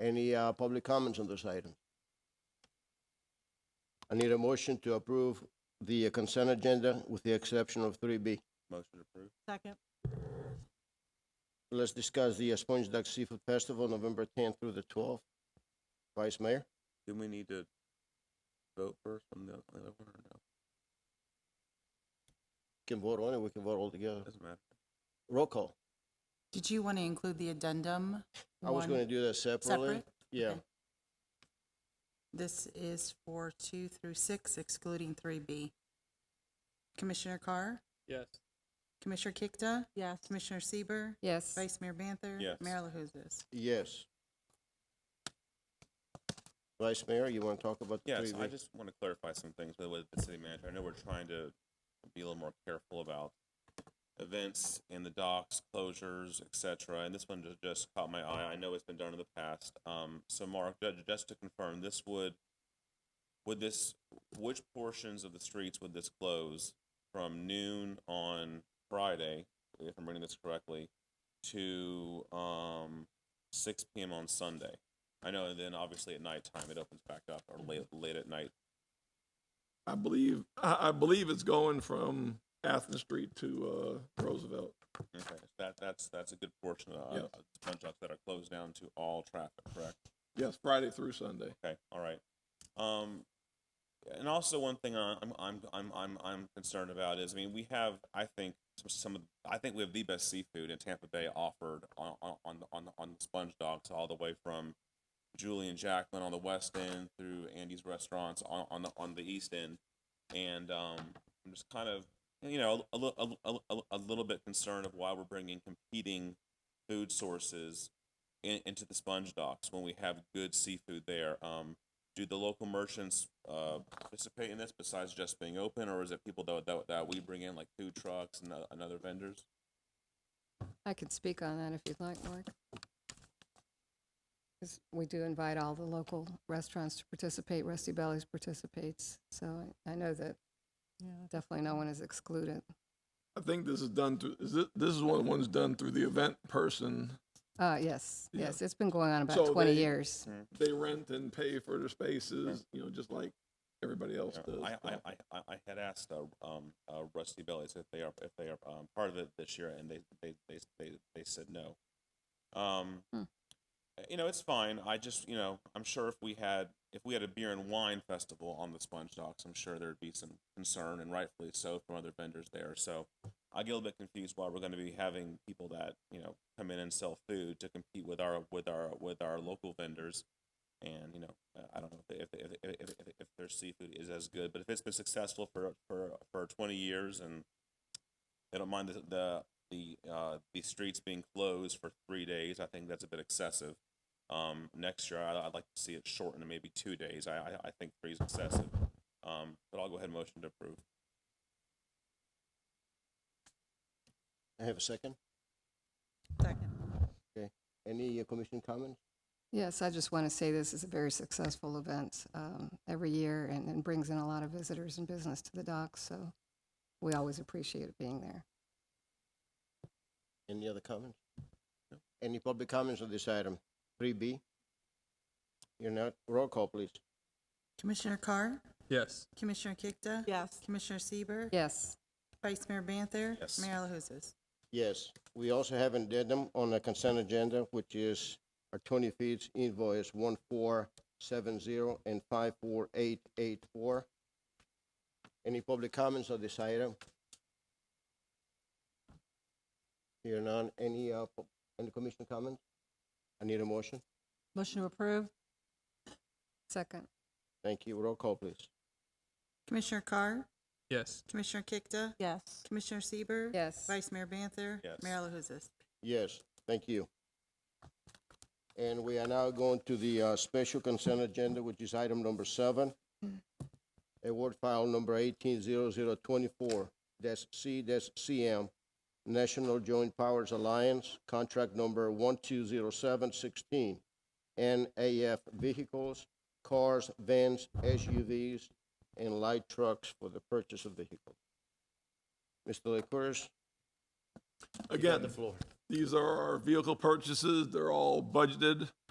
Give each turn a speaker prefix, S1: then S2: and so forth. S1: Any uh, public comments on this item? I need a motion to approve the uh, consent agenda with the exception of three B.
S2: Motion approved.
S3: Second.
S1: Let's discuss the uh, Sponge Duck Seafood Festival, November tenth through the twelfth. Vice Mayor?
S2: Didn't we need to vote first on the other one or no?
S1: Can vote on it, we can vote all together.
S2: Doesn't matter.
S1: Roll call.
S4: Did you want to include the addendum?
S1: I was
S4: one
S1: gonna do that separately.
S4: Separate?
S1: Yeah,
S4: Okay. This is for two through six excluding three B. Commissioner Carr?
S5: Yes.
S4: Commissioner Kikta?
S3: Yes.
S4: Commissioner Sieber,
S3: Yes.
S4: Vice Mayor Banther?
S2: Yes.
S4: Mayor LaHousas?
S1: yes. Vice Mayor, you wanna talk about the three
S2: Yes,
S1: B?
S2: I just want to clarify some things with- with the city manager. I know we're trying to be a little more careful about events in the docks, closures, et cetera. And this one ju- just caught my eye. I know it's been done in the past. Um, so Mark, ju- just to confirm, this would, would this, which portions of the streets would this close from noon on Friday, if I'm reading this correctly, to, um, six PM on Sunday? I know, and then obviously at nighttime it opens back up or late, late at night.
S6: I believe, I, I believe it's going from Athens Street to, uh, Roosevelt.
S2: Okay, that, that's, that's a good portion of, uh,
S6: Yes.
S2: of sponge docks that are closed down to all traffic, correct?
S6: Yes, Friday through Sunday.
S2: Okay, all right. Um, and also one thing I- I'm, I'm, I'm, I'm, I'm concerned about is, I mean, we have, I think, some- some of, I think we have the best seafood in Tampa Bay offered on, on, on, on, on sponge docks all the way from Julie and Jacqueline on the west end through Andy's restaurants on, on the, on the east end. And, um, I'm just kind of, you know, a, li- a, li- a, li- a little bit concerned of why we're bringing competing food sources in, into the sponge docks when we have good seafood there. Um, do the local merchants uh, participate in this besides just being open, or is it people that, that, that we bring in, like food trucks and, oth- and other vendors?
S3: I could speak on that if you'd like, Mark. 'Cause we do invite all the local restaurants to participate, Rusty Bellies participates, so I I know that definitely no one is excluded.
S6: I think this is done through, is this, this is one of the ones done through the event person.
S3: Uh, yes,
S6: Yeah.
S3: yes, it's been going on about
S6: So
S3: twenty
S6: they-
S3: years.
S6: They rent and pay for their spaces, you know, just like everybody else
S2: Yeah,
S6: does.
S2: I, I, I, I I had asked uh, um, uh, Rusty Bellies if they are if they are um, part of it this year, and they they they they, they said no. Um,
S3: Hmm.
S2: you know, it's fine. I just you know, I'm sure if we had if we had a beer and wine festival on the Sponge Docks, I'm sure there'd be some concern, and rightfully so, from other vendors there. So I get a little bit confused why we're going to be having people that you know come in and sell food to compete with our with our with our local vendors and you know uh, I don't know if if if, if, if, if their seafood is as good, but if it's been successful for for for twenty years and they don't mind the the the, uh, the streets being closed for three days, I think that's a bit excessive. Um, next year, I, I'd like to see it shortened to maybe two days. I I, I think three is excessive. Um, but I'll go ahead and motion to approve.
S1: I have a second.
S4: Second.
S1: Any uh, commission comments?
S3: Yes, I just want to say this is a very successful event um, every year and and brings in a lot of visitors and business to the docks, so we always appreciate it being there.
S1: Any other comments? Any public comments on this item? Three B? You're not, roll call, please.
S4: Commissioner Carr?
S5: Yes.
S4: Commissioner Kikta?
S3: Yes.
S4: Commissioner Sieber,
S3: Yes.
S4: Vice Mayor Banther?
S2: Yes.
S4: Mayor LaHousas?
S1: Yes, we also have an addendum on the consent agenda, which is our Tony Feeds invoice one four seven zero and five four eight eight four. Any public comments on this item? Here none, any, uh, pu- any commission comments? I need a motion.
S3: Motion to approve. Second.
S1: Thank you, roll call, please.
S4: Commissioner Carr?
S5: Yes.
S4: Commissioner Kikta?
S3: Yes.
S4: Commissioner Sieber,
S3: Yes.
S4: Vice Mayor Banther?
S2: Yes.
S4: Mayor LaHousas?
S1: Yes, thank you. And we are now going to the uh, special consent agenda, which is item number seven. Award file number eighteen zero zero twenty-four dash C dash CM, National Joint Powers Alliance, contract number one two zero seven sixteen, NAF vehicles, cars, vans, SUVs, and light trucks for the purchase of vehicles. Mr. Licorice?
S6: Again, these are our vehicle purchases. They're all budgeted.